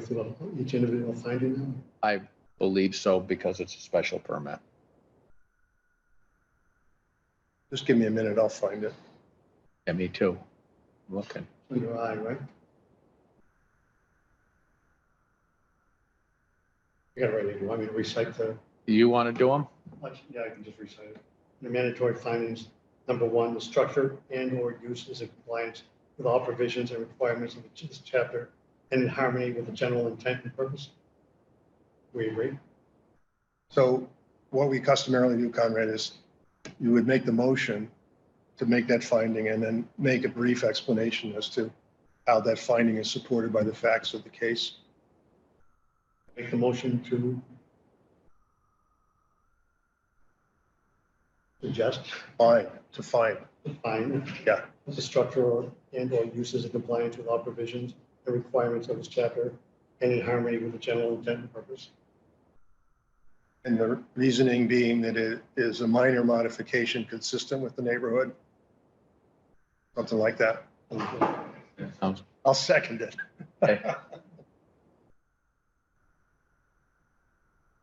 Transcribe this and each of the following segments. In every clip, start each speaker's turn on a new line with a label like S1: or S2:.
S1: through each individual finding them?
S2: I believe so because it's a special permit.
S1: Just give me a minute, I'll find it.
S2: Yeah, me too. Looking.
S1: Under I, right? I got it right here. You want me to recite the,
S2: You want to do them?
S1: yeah, I can just recite it. The mandatory findings, number one, the structure and or use is in compliance with all provisions and requirements of this chapter and in harmony with the general intent and purpose. We agree?
S3: So what we customarily do, Conrad, is you would make the motion to make that finding and then make a brief explanation as to how that finding is supported by the facts of the case.
S1: Make the motion to suggest,
S3: Fine, to find.
S1: find.
S3: Yeah.
S1: The structure or- and or uses in compliance with all provisions and requirements of this chapter and in harmony with the general intent and purpose.
S3: And the reasoning being that it is a minor modification consistent with the neighborhood. Something like that.
S2: Sounds-
S3: I'll second it.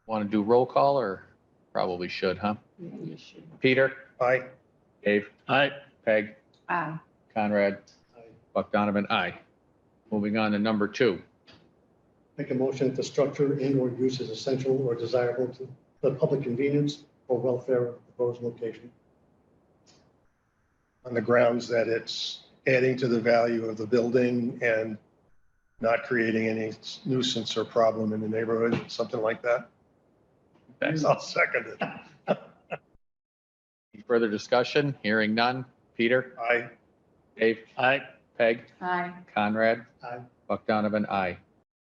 S2: Want to do roll call or probably should, huh?
S4: You should.
S2: Peter?
S3: Aye.
S2: Dave? Aye. Peg?
S4: Aye.
S2: Conrad?
S1: I
S2: Buck Donovan? Aye. Moving on to number two.
S1: Make a motion that the structure and or use is essential or desirable to the public convenience or welfare of the proposed location.
S3: on the grounds that it's adding to the value of the building and not creating any nuisance or problem in the neighborhood, something like that. I'll second it.
S2: Any Further discussion? Hearing none. Peter?
S3: I,
S2: Dave? Aye. Peg?
S4: Aye.
S2: Conrad?
S1: Aye.
S2: Buck Donovan? Aye.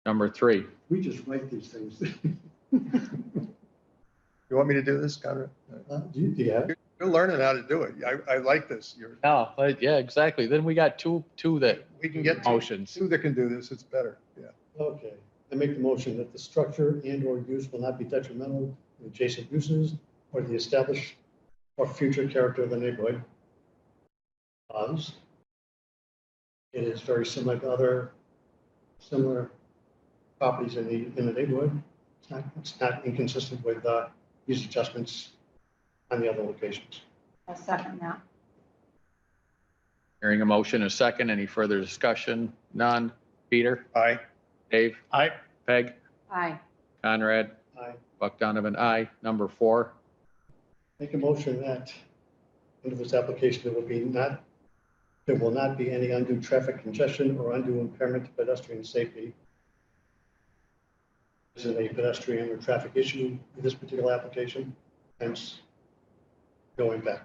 S2: Number three.
S1: We just write these things.
S3: you want me to do this, Conrad?
S1: Uh, Do you, do you have?
S3: You're learning how to do it. I, I like this. You're,
S2: No, but Oh, yeah, exactly. Then we got two, two that,
S3: we can get two-
S2: motions.
S3: two that can do this. It's better. Yeah.
S1: Okay, I make the motion that the structure and or use will not be detrimental to adjacent uses or the established or future character of the neighborhood. Pause. It is very similar to other similar properties in the, in the neighborhood. It's not, it's not inconsistent with, uh, use adjustments on the other locations.
S4: I'll second that.
S2: Hearing a motion, a second. Any further discussion? None. Peter?
S3: Aye.
S2: Dave? Aye. Peg?
S4: Aye.
S2: Conrad?
S1: I
S2: Buck Donovan, aye. Number four.
S1: Make a motion that under this application, there will be not, there will not be any undue traffic congestion or undue impairment to pedestrian safety. This is a pedestrian or traffic issue with this particular application, hence going back.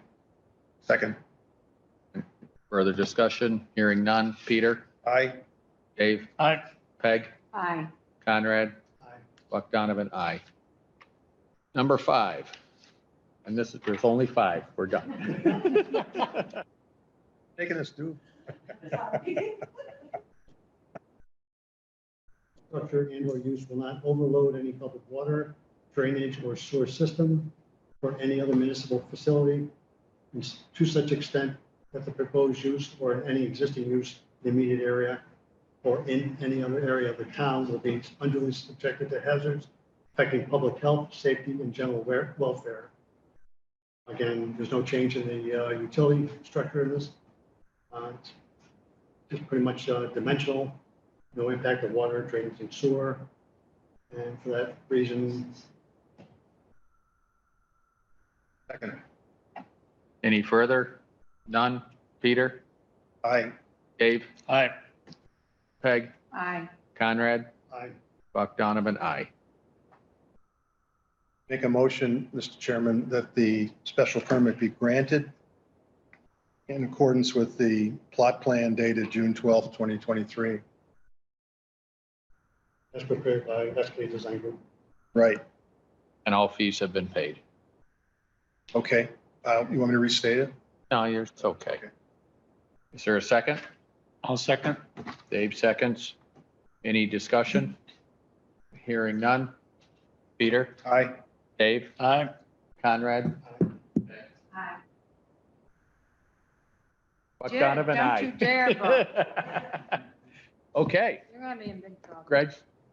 S3: Second.
S2: Further discussion? Hearing none. Peter?
S3: I,
S2: Dave? Aye. Peg?
S4: Aye.
S2: Conrad?
S1: Aye.
S2: Buck Donovan, aye. Number five. And this is, there's only five. We're done.
S3: making us do.
S1: Structure and or use will not overload any public water, drainage or sewer system or any other municipal facility and s- to such extent that the proposed use or any existing use in the immediate area or in any other area of the town will be unduly subjected to hazards affecting public health, safety, and general wer- welfare. Again, there's no change in the uh, utility structure in this. Uh, it's Just pretty much uh, dimensional, no impact of water, drainage, and sewer. And for that reason,
S3: Second.
S2: Any further? None. Peter?
S3: I,
S2: Dave? Aye. Peg?
S4: Aye.
S2: Conrad?
S1: I
S2: Buck Donovan, aye.
S3: make a motion, Mr. Chairman, that the special permit be granted in accordance with the plot plan dated June 12th, 2023.
S1: As prepared by SK Design Group.
S3: Right,
S2: And all fees have been paid.
S3: okay. Uh, You want me to restate it?
S2: No, you're, it's okay.
S3: Okay.
S2: Is there a second? I'll second. Dave seconds. Any discussion? Hearing none. Peter?
S3: Aye.
S2: Dave? Aye. Conrad?
S4: Aye.
S2: Buck
S4: Jared,
S2: Donovan,
S4: don't you
S2: aye.
S4: dare vote.
S2: Okay,
S4: You're gonna be in big trouble.
S2: Greg,